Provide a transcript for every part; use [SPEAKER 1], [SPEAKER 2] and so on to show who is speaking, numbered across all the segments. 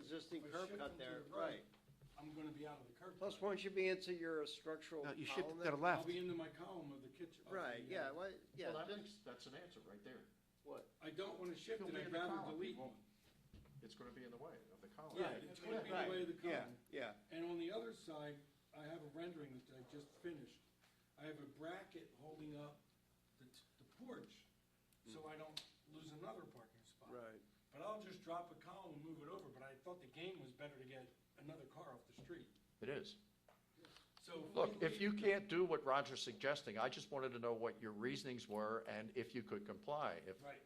[SPEAKER 1] curb
[SPEAKER 2] shift them
[SPEAKER 1] cut
[SPEAKER 2] to
[SPEAKER 1] there,
[SPEAKER 2] the
[SPEAKER 1] right.
[SPEAKER 2] I'm gonna be out of the curb.
[SPEAKER 1] Plus,
[SPEAKER 2] cut.
[SPEAKER 1] won't you be into your structural
[SPEAKER 3] No, you shift
[SPEAKER 1] column
[SPEAKER 3] it to the
[SPEAKER 1] then?
[SPEAKER 2] I'll
[SPEAKER 3] left.
[SPEAKER 2] be into my column of the kitchen. of the,
[SPEAKER 1] Right,
[SPEAKER 2] uh,
[SPEAKER 1] yeah, what, yeah,
[SPEAKER 4] Well, that
[SPEAKER 1] just-
[SPEAKER 4] makes- that's an answer right there.
[SPEAKER 1] what,
[SPEAKER 2] I don't wanna shift
[SPEAKER 4] It'll
[SPEAKER 2] it,
[SPEAKER 4] be
[SPEAKER 2] I'd
[SPEAKER 4] in the
[SPEAKER 2] rather
[SPEAKER 4] column.
[SPEAKER 2] delete
[SPEAKER 4] It
[SPEAKER 2] one.
[SPEAKER 4] won't- It's gonna be in the way of the column.
[SPEAKER 2] Yeah, it's gonna be in the way of the
[SPEAKER 1] yeah,
[SPEAKER 2] column.
[SPEAKER 1] yeah,
[SPEAKER 2] And on the other side, I have a rendering that I just finished. I have a bracket holding up the, t- the porch, so
[SPEAKER 4] Mm.
[SPEAKER 2] I don't lose another parking spot.
[SPEAKER 1] right.
[SPEAKER 2] But I'll just drop a column and move it over, but I thought the game was better to get another car off the street.
[SPEAKER 4] It is.
[SPEAKER 2] So. we
[SPEAKER 4] Look, if
[SPEAKER 2] leave-
[SPEAKER 4] you can't do what Roger's suggesting, I just wanted to know what your reasonings were and if you could comply. If,
[SPEAKER 2] Right.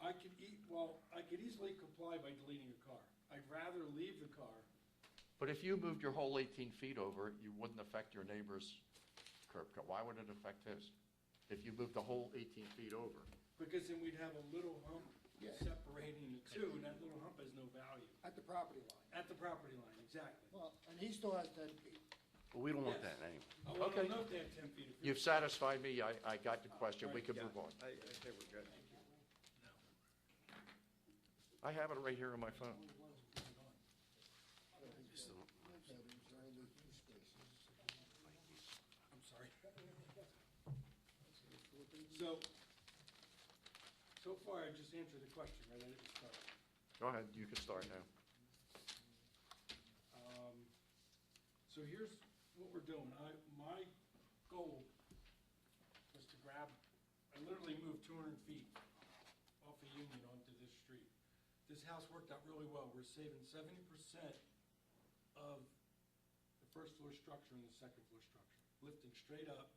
[SPEAKER 2] I could eat, well, I could easily comply by deleting a car. I'd rather leave the car.
[SPEAKER 4] but if you moved your whole 18 feet over, you wouldn't affect your neighbor's curb cut. Why would it affect his? If you moved the whole 18 feet over?
[SPEAKER 2] Because then we'd have a little hump
[SPEAKER 5] Yeah.
[SPEAKER 2] separating the two, and that little hump has no value.
[SPEAKER 5] at the property line.
[SPEAKER 2] At the property line, exactly.
[SPEAKER 5] Well, and he still has ten feet.
[SPEAKER 3] But we don't want
[SPEAKER 2] Yes.
[SPEAKER 3] that anyway.
[SPEAKER 2] I want
[SPEAKER 4] Okay.
[SPEAKER 2] to note that ten feet. if
[SPEAKER 4] You've satisfied me. I, I got the question. We can
[SPEAKER 1] Yeah,
[SPEAKER 4] move on.
[SPEAKER 1] I, I think we're good.
[SPEAKER 4] I have it right here on my phone.
[SPEAKER 5] Yeah, there's only two spaces.
[SPEAKER 2] I'm sorry. So, so far, I just answered the question, right? I didn't start.
[SPEAKER 4] Go ahead, you can start now.
[SPEAKER 2] Um, So here's what we're doing. I, my goal was to grab, I literally moved two hundred feet off of Union onto this street. This house worked out really well. We're saving seventy percent of the first floor structure and the second floor structure, lifting straight up,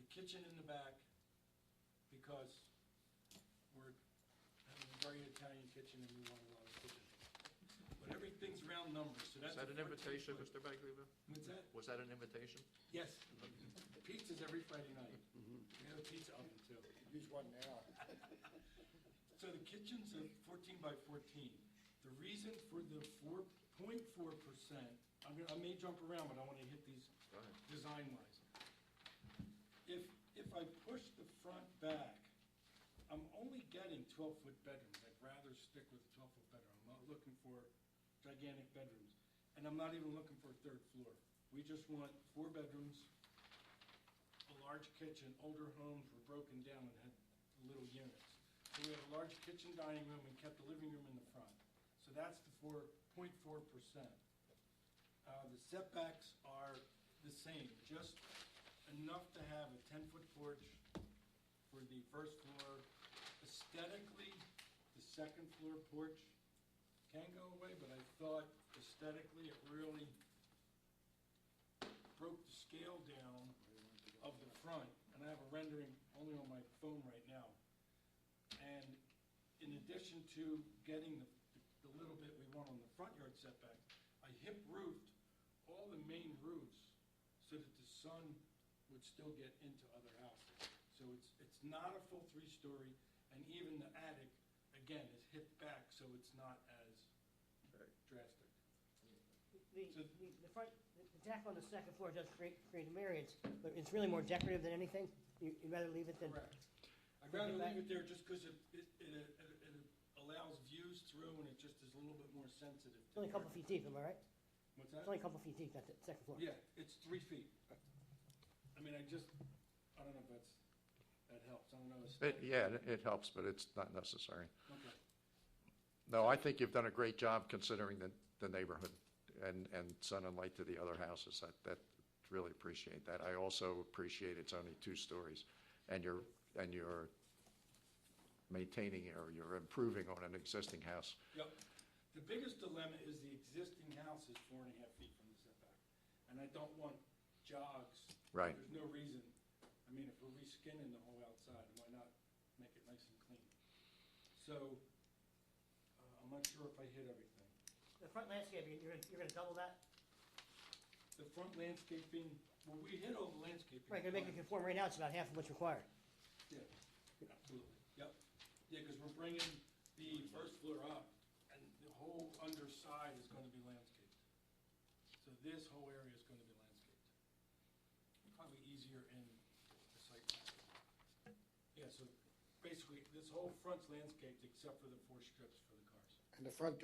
[SPEAKER 2] the kitchen in the back, because we're having a very Italian kitchen and we want a lot of kitchen. But everything's round numbers, so that's.
[SPEAKER 4] Is that
[SPEAKER 2] a 14
[SPEAKER 4] an invitation,
[SPEAKER 2] foot.
[SPEAKER 4] Mr. Baglivo?
[SPEAKER 2] What's that?
[SPEAKER 4] Was that an invitation?
[SPEAKER 2] Yes, pizza's every Friday night. We have a pizza oven too.
[SPEAKER 5] Use one now.
[SPEAKER 2] So the kitchen's a fourteen by fourteen. The reason for the four point four percent, I'm gonna, I may jump around, but I wanna hit these
[SPEAKER 4] Go ahead.
[SPEAKER 2] design wise. If, if I push the front back, I'm only getting twelve foot bedrooms, I'd rather stick with a twelve foot bedroom, I'm not looking for gigantic bedrooms. And I'm not even looking for a third floor, we just want four bedrooms, a large kitchen, older homes were broken down and had little units. So we have a large kitchen dining room and kept the living room in the front, so that's the four point four percent. Uh, the setbacks are the same, just enough to have a ten-foot porch for the first floor. Aesthetically, the second floor porch can go away, but I thought aesthetically, it really broke the scale down of the front, and I have a rendering only on my phone right now. And in addition to getting the, the little bit we want on the front yard setback, I hip roofed all the main roofs so that the sun would still get into other houses. So it's, it's not a full three-story, and even the attic, again, is hip back, so it's not as drastic.
[SPEAKER 6] The,
[SPEAKER 2] So-
[SPEAKER 6] the- the front, the deck on the second floor does create, create a variance, but it's really more decorative than anything. You- You'd rather leave it than,
[SPEAKER 2] Correct. I'd
[SPEAKER 6] Put it
[SPEAKER 2] rather
[SPEAKER 6] back-
[SPEAKER 2] leave it there just because it, it, it, it it allows views through and it just is a little bit more sensitive.
[SPEAKER 6] it's
[SPEAKER 2] to
[SPEAKER 6] only a couple
[SPEAKER 2] the-
[SPEAKER 6] feet deep, am I right?
[SPEAKER 2] What's
[SPEAKER 6] It's
[SPEAKER 2] that?
[SPEAKER 6] only a couple feet deep, that's it, second floor.
[SPEAKER 2] Yeah, it's three feet. I mean, I just, I don't know if that's, that helps. I don't know. it's-
[SPEAKER 4] It, yeah, it- it helps, but it's not necessary.
[SPEAKER 2] Okay.
[SPEAKER 4] No, I think you've done a great job considering the, the neighborhood and, and sun and light to the other houses. That, that, really appreciate that. I also appreciate it's only two stories and you're, and you're maintaining or you're improving on an existing house.
[SPEAKER 2] Yep. The biggest dilemma is the existing house is four and a half feet from the setback. And I don't want jogs.
[SPEAKER 4] Right.
[SPEAKER 2] There's no reason. I mean, if we're reskinning the whole outside, why not make it nice and clean? So, uh, I'm not sure if I hit everything.
[SPEAKER 6] The front landscape, you- you're, gonna- you're gonna double that?
[SPEAKER 2] The front landscaping, well, we hit all the landscaping.
[SPEAKER 6] Right, gonna make it conform right now, it's about half of what's required.
[SPEAKER 2] Yeah, absolutely, yep. Yeah, because we're bringing the first floor up, and the whole underside is gonna be landscaped. So this whole area is gonna be landscaped. Probably easier in the site. plan. Yeah, so basically, this whole front's landscaped except for the four strips for the cars.
[SPEAKER 5] And the front